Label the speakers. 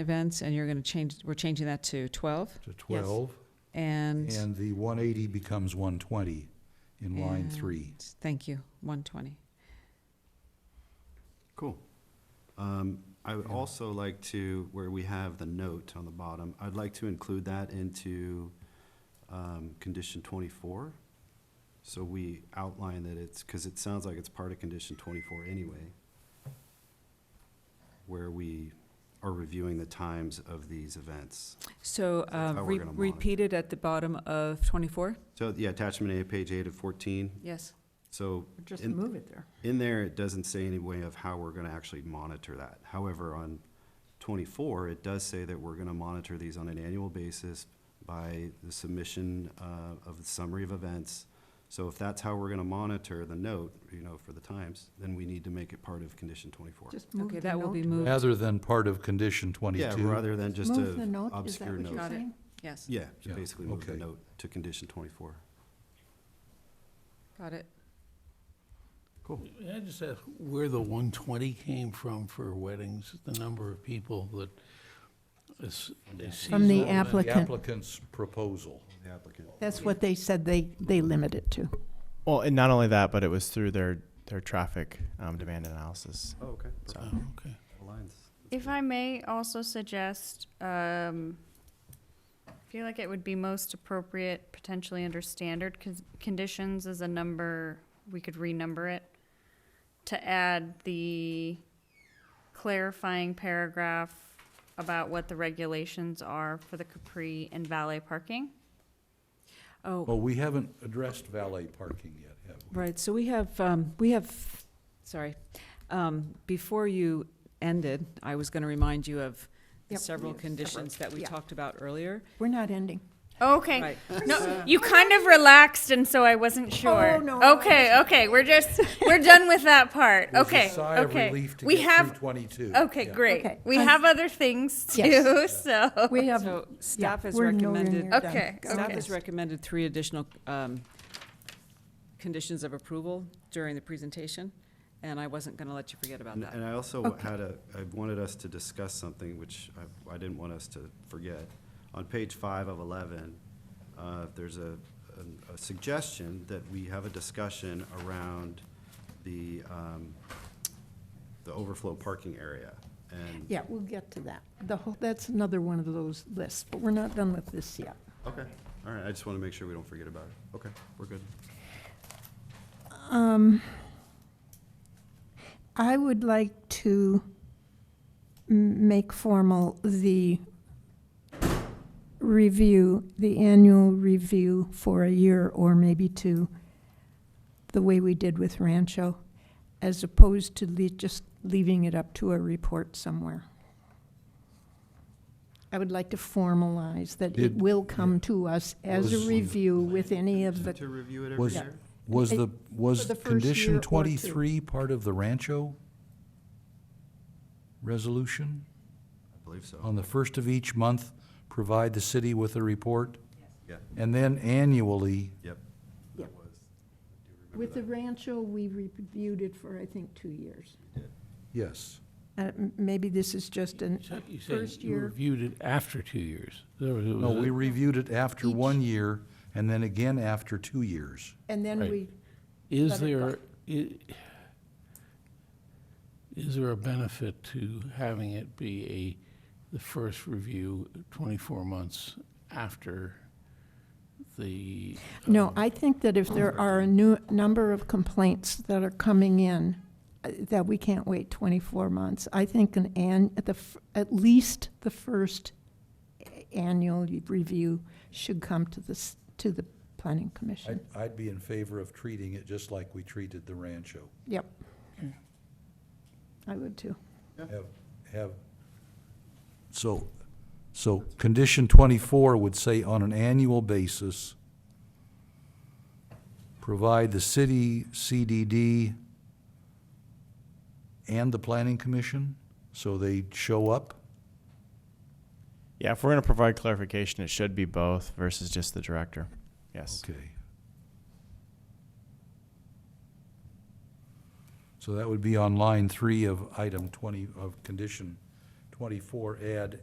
Speaker 1: events, and you're going to change, we're changing that to 12,
Speaker 2: to 12,
Speaker 1: and,
Speaker 2: and the 180 becomes 120 in line
Speaker 1: And-
Speaker 2: 3.
Speaker 1: thank you, 120.
Speaker 3: Cool. Um, I would also like to, where we have the note on the bottom, I'd like to include that into, um, condition twenty-four. So we outline that it's, cause it sounds like it's part of condition twenty-four anyway. Where we are reviewing the times of these events.
Speaker 1: So
Speaker 3: That's
Speaker 1: uh,
Speaker 3: how we're
Speaker 1: re-
Speaker 3: gonna monitor.
Speaker 1: repeat it at the bottom of 24?
Speaker 3: So, yeah, attachment A, page eight of fourteen,
Speaker 1: Yes.
Speaker 3: so
Speaker 4: Just
Speaker 3: In-
Speaker 4: move it there.
Speaker 3: In there, it doesn't say any way of how we're gonna actually monitor that. However, on twenty-four, it does say that we're gonna monitor these on an annual basis by the submission, uh, of the summary of events. So if that's how we're gonna monitor the note, you know, for the times, then we need to make it part of condition twenty-four.
Speaker 4: Just move
Speaker 1: Okay,
Speaker 4: the
Speaker 1: that will be
Speaker 4: note.
Speaker 1: moved,
Speaker 2: Rather than part of condition
Speaker 3: Yeah,
Speaker 2: 22,
Speaker 3: rather than just
Speaker 4: Move the
Speaker 3: a
Speaker 4: note, is that
Speaker 3: obscure
Speaker 4: what you're
Speaker 3: note.
Speaker 1: Got it.
Speaker 4: saying?
Speaker 1: yes,
Speaker 3: Yeah,
Speaker 2: Yeah,
Speaker 3: just basically move the
Speaker 2: okay.
Speaker 3: note to condition twenty-four.
Speaker 1: got it.
Speaker 3: Cool.
Speaker 5: May I just ask where the 120 came from for weddings, the number of people that is is
Speaker 4: From the
Speaker 5: seasonal event?
Speaker 2: the
Speaker 4: applicant.
Speaker 2: applicant's proposal.
Speaker 3: The applicant.
Speaker 4: That's what they said they, they limit it to.
Speaker 6: Well, and not only that, but it was through their their traffic um, demand analysis.
Speaker 3: Oh, okay.
Speaker 6: So.
Speaker 5: Oh, okay.
Speaker 3: Aligns.
Speaker 7: If I may also suggest, um, I feel like it would be most appropriate potentially under standard cons- conditions as a number, we could renumber it, to add the clarifying paragraph about what the regulations are for the Capri and valet parking.
Speaker 1: Oh,
Speaker 2: Well, we haven't addressed valet parking yet, have we?
Speaker 1: right, so we have, um, we have, sorry, Um, before you ended, I was going to remind you of the
Speaker 4: Yep.
Speaker 1: several
Speaker 4: Yes.
Speaker 1: conditions that we
Speaker 4: Yeah.
Speaker 1: talked about earlier.
Speaker 4: We're not ending.
Speaker 7: Okay.
Speaker 1: Right.
Speaker 7: No, you kind of relaxed, and so I wasn't sure.
Speaker 4: Oh, no, no,
Speaker 7: Okay, okay, we're just, we're done with that part.
Speaker 2: It was a
Speaker 7: Okay,
Speaker 2: sigh of
Speaker 7: okay.
Speaker 2: relief to
Speaker 7: We
Speaker 2: get through
Speaker 7: have,
Speaker 2: 22.
Speaker 7: okay,
Speaker 2: Yeah.
Speaker 4: Okay.
Speaker 7: great. We
Speaker 4: I'm-
Speaker 7: have other things too,
Speaker 4: Yes.
Speaker 7: so.
Speaker 4: We have,
Speaker 1: So
Speaker 4: yeah,
Speaker 1: staff has
Speaker 4: we're nowhere
Speaker 1: recommended
Speaker 4: near done.
Speaker 7: Okay,
Speaker 4: Go
Speaker 1: Staff
Speaker 7: okay.
Speaker 1: has
Speaker 4: fast.
Speaker 1: recommended three additional um, conditions of approval during the presentation, and I wasn't going to let you forget about
Speaker 3: And
Speaker 1: that.
Speaker 3: and I also
Speaker 4: Okay.
Speaker 3: had a, I wanted us to discuss something which I, I didn't want us to forget. On page five of eleven, uh, there's a, an- a suggestion that we have a discussion around the, um, the overflow parking area. And,
Speaker 4: Yeah, we'll get to that. The whole, that's another one of those lists, but we're not done with this yet.
Speaker 3: okay, all right, I just want to make sure we don't forget about it. Okay, we're good.
Speaker 4: I would like to m- make formal the review, the annual review for a year or maybe two, the way we did with Rancho, as opposed to le- just leaving it up to a report somewhere. I would like to formalize that it
Speaker 2: Did-
Speaker 4: will come to us as a
Speaker 2: Was-
Speaker 4: review with any of the,
Speaker 3: To review it every
Speaker 2: Was-
Speaker 3: year?
Speaker 2: Was
Speaker 4: I-
Speaker 2: the, was
Speaker 4: the first year
Speaker 2: condition
Speaker 4: or two.
Speaker 2: 23 part of the Rancho resolution?
Speaker 3: I believe so.
Speaker 2: On the first of each month, provide the city with a report?
Speaker 3: Yeah,
Speaker 2: And then annually,
Speaker 3: yep.
Speaker 4: Yeah.
Speaker 3: That was- I do remember
Speaker 4: with the
Speaker 3: that.
Speaker 4: Rancho, we reviewed it for, I think, two years.
Speaker 2: yes.
Speaker 4: Uh, m- Maybe this is just an,
Speaker 5: So You said
Speaker 4: First
Speaker 5: you
Speaker 4: year.
Speaker 5: reviewed it after two years. There was- it
Speaker 2: No,
Speaker 5: was a-
Speaker 2: we reviewed it after
Speaker 4: Each-
Speaker 2: one year and then again after two years.
Speaker 4: and then
Speaker 5: Right.
Speaker 4: we,
Speaker 5: Is
Speaker 4: let it go.
Speaker 5: there, i- is there a benefit to having it be a, the first review 24 months after the?
Speaker 4: no,
Speaker 5: um,
Speaker 4: I think that if there are a new, number of complaints that are coming in, uh, that we can't wait 24 months, I think an, an, at the, f- at least the first a- annual review should come to this, to the planning
Speaker 2: I'd,
Speaker 4: commission.
Speaker 2: I'd be in favor of treating it just like we treated the Rancho.
Speaker 4: Yep. I would too.
Speaker 2: Have, have, so, so condition twenty-four would say on an annual basis, provide the city, CDD, and the planning commission, so they show up?
Speaker 6: Yeah, if we're going to provide clarification, it should be both versus just the director. Yes.
Speaker 2: Okay. So that would be on line three of item twenty, of condition twenty-four add